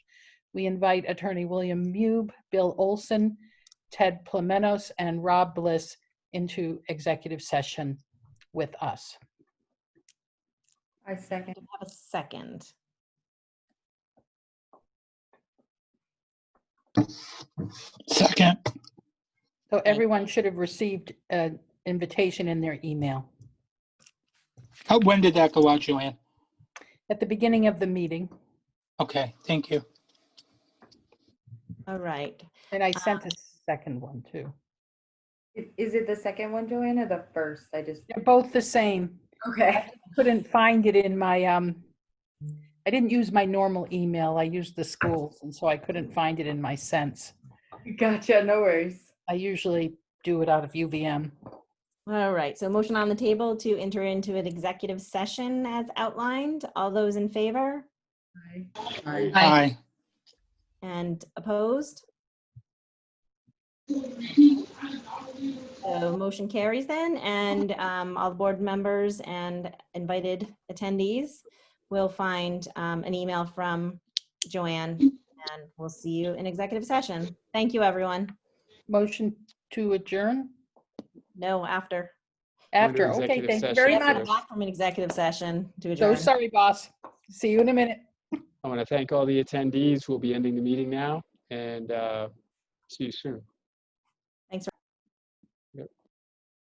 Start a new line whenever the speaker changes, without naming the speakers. we invite Attorney William Mube, Bill Olson, Ted Plamenos, and Rob Bliss into executive session with us.
I second.
I have a second.
Second,
So
you.
everyone should have received an invitation in their email
how, Oh, when did that go out, Joanne?
at the beginning of the meeting,
Okay, thank you.
All right.
and I sent a second one too.
I- Is it the second one, Joanna, or the first? I just,
They're both the same.
okay.
Couldn't find it in my, um, I didn't use my normal email. I used the schools, and so I couldn't find it in my sense.
Gotcha, no worries.
I usually do it out of UVM.
All right. So motion on the table to enter into an executive session as outlined. All those in favor
Aye.
Aye.
and opposed? So motion carries then, and um, all the board members and invited attendees will find um, an email from Joanne, and we'll see you in executive session. Thank you, everyone.
Motion to adjourn
No, after.
Under
after. Okay,
executive
thank you
session
very
Very
much.
first.
much back from an executive session to
So
adjourn.
sorry, boss. See you in a minute.
I want to thank all the attendees. We'll be ending the meeting now and uh, see you soon.